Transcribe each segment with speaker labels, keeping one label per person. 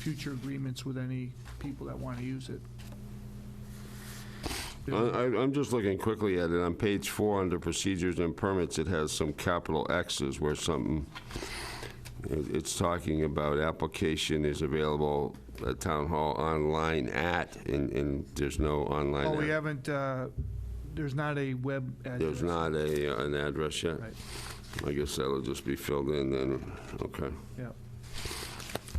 Speaker 1: future agreements with any people that want to use it.
Speaker 2: I, I- I'm just looking quickly at it. On page four, under procedures and permits, it has some capital X's where something, it- it's talking about application is available at town hall online at, and, and there's no online.
Speaker 1: Oh, we
Speaker 2: ad-
Speaker 1: haven't, uh, there's not a web address.
Speaker 2: There's not a, uh, an address yet?
Speaker 1: Right,
Speaker 2: I guess that'll just be filled in then, okay.
Speaker 1: yeah.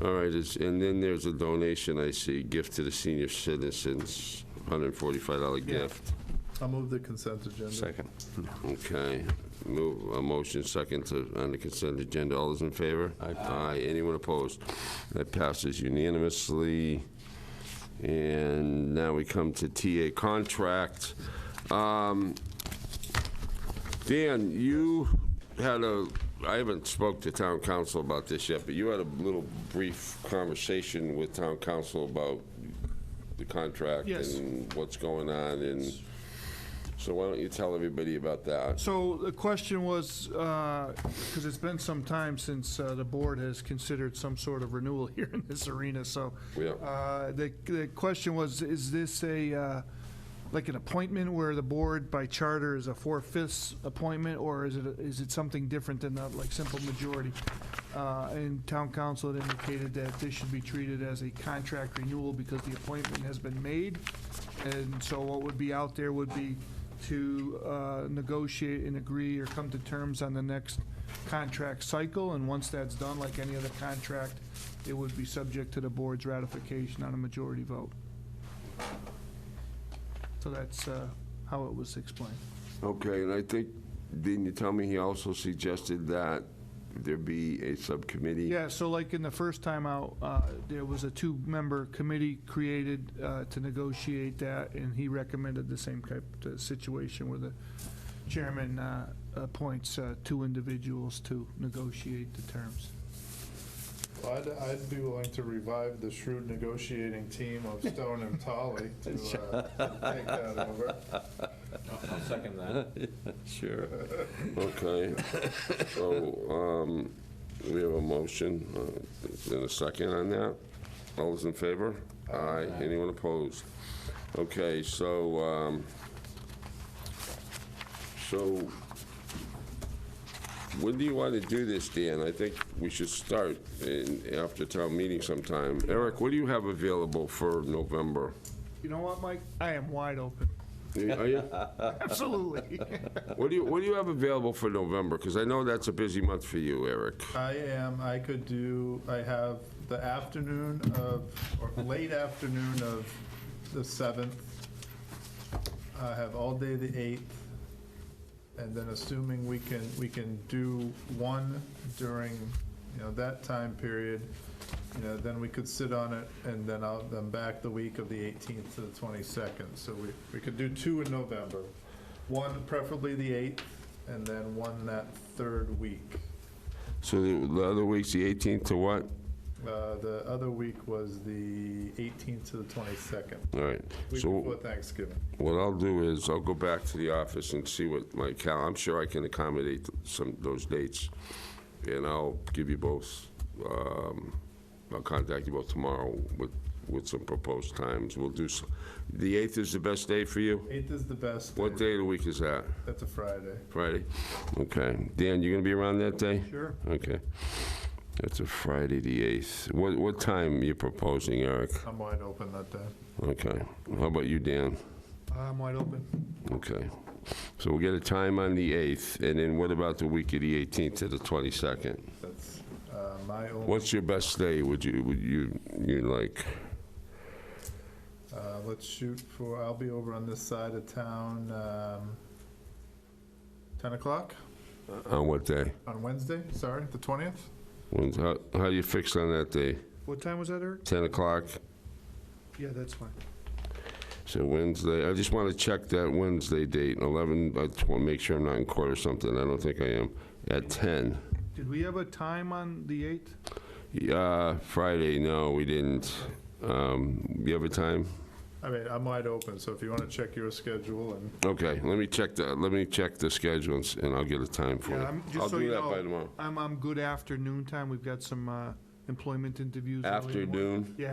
Speaker 2: All right, it's- and then there's a donation, I see, gift to the senior citizens, $145
Speaker 1: Yeah.
Speaker 2: gift.
Speaker 3: I'll move the consent agenda.
Speaker 4: Second.
Speaker 2: Okay, move, a motion second to, on the consent agenda, all those in favor? Aye. Aye, anyone opposed? That passes unanimously. And now we come to TA contract. Um, Dan, you had a, I haven't spoke to town council about this yet, but you had a little brief conversation with town council about the contract
Speaker 1: Yes.
Speaker 2: and what's going on and so why don't you tell everybody about that?
Speaker 1: So the question was, because it's been some time since uh, the board has considered some sort of renewal here in this arena, so.
Speaker 2: Yeah.
Speaker 1: uh, The, the question was, is this a, uh, like an appointment where the board by charter is a four-fifths appointment? Or is it, is it something different than that, like simple majority? Uh, And town council had indicated that this should be treated as a contract renewal because the appointment has been made. And so what would be out there would be to uh, negotiate and agree or come to terms on the next contract cycle. And once that's done, like any other contract, it would be subject to the board's ratification on a majority vote. So that's uh, how it was explained.
Speaker 2: Okay, and I think, didn't you tell me he also suggested that there be a subcommittee?
Speaker 1: Yeah, so like in the first time out, uh, there was a two-member committee created uh, to negotiate that, and he recommended the same type of situation where the chairman uh, appoints uh, two individuals to negotiate the terms.
Speaker 3: Well, I'd, I'd be willing to revive the shrewd negotiating team of Stone and Tolly to uh, take that over.
Speaker 5: Second that.
Speaker 4: Sure.
Speaker 2: Okay, so, um, we have a motion, uh, and a second on that. All those in favor? Aye, anyone opposed? Okay, so, um, so, when do you want to do this, Dan? I think we should start in, after town meeting sometime. Eric, what do you have available for November?
Speaker 1: You know what, Mike? I am wide open.
Speaker 2: Are you?
Speaker 1: Absolutely.
Speaker 2: What do you, what do you have available for November? Because I know that's a busy month for you, Eric.
Speaker 3: I am, I could do, I have the afternoon of, or late afternoon of the 7th. I have all day the 8th. And then assuming we can, we can do one during, you know, that time period, you know, then we could sit on it and then I'll, then back the week of the 18th to the 22nd. So we, we could do two in November. One preferably the 8th and then one that third week.
Speaker 2: So the the other week's the 18th to what?
Speaker 3: Uh, The other week was the 18th to the 22nd,
Speaker 2: All right.
Speaker 3: week before
Speaker 2: So
Speaker 3: Thanksgiving.
Speaker 2: what I'll do is I'll go back to the office and see what my cal, I'm sure I can accommodate some, those dates. And I'll give you both, um, I'll contact you both tomorrow with, with some proposed times. We'll do, s- the 8th is the best day for you?
Speaker 3: 8th is the best.
Speaker 2: What day of the week is that?
Speaker 3: That's a Friday.
Speaker 2: Friday? Okay. Dan, you gonna be around that day?
Speaker 1: Sure.
Speaker 2: Okay. That's a Friday, the 8th. What, what time you proposing, Eric?
Speaker 3: I'm wide open that day.
Speaker 2: Okay. How about you, Dan?
Speaker 1: I'm wide open.
Speaker 2: Okay. So we'll get a time on the 8th, and then what about the week of the 18th to the 22nd?
Speaker 3: That's uh, my only,
Speaker 2: What's your best day, would you, would you, you like?
Speaker 3: uh, let's shoot for, I'll be over on this side of town, um, 10 o'clock
Speaker 2: On what day?
Speaker 3: on Wednesday, sorry, the 20th?
Speaker 2: When's- How, how you fixed on that day?
Speaker 1: What time was that, Eric?
Speaker 2: 10 o'clock?
Speaker 1: Yeah, that's fine.
Speaker 2: So Wednesday, I just want to check that Wednesday date, 11, I just want to make sure I'm not in court or something, I don't think I am, at 10.
Speaker 1: Did we have a time on the 8th?
Speaker 2: Yeah, Friday, no, we didn't. Um, You have a time?
Speaker 3: I mean, I'm wide open, so if you want to check your schedule and
Speaker 2: Okay, let me check the, let me check the schedule and s- and I'll get a time for you.
Speaker 1: Yeah, I'm- just
Speaker 2: I'll
Speaker 1: so
Speaker 2: do
Speaker 1: you
Speaker 2: that
Speaker 1: know,
Speaker 2: by tomorrow.
Speaker 1: I'm on good afternoon time. We've got some uh,
Speaker 2: employment interviews. early in the morning.
Speaker 1: Afternoon?
Speaker 2: Yeah,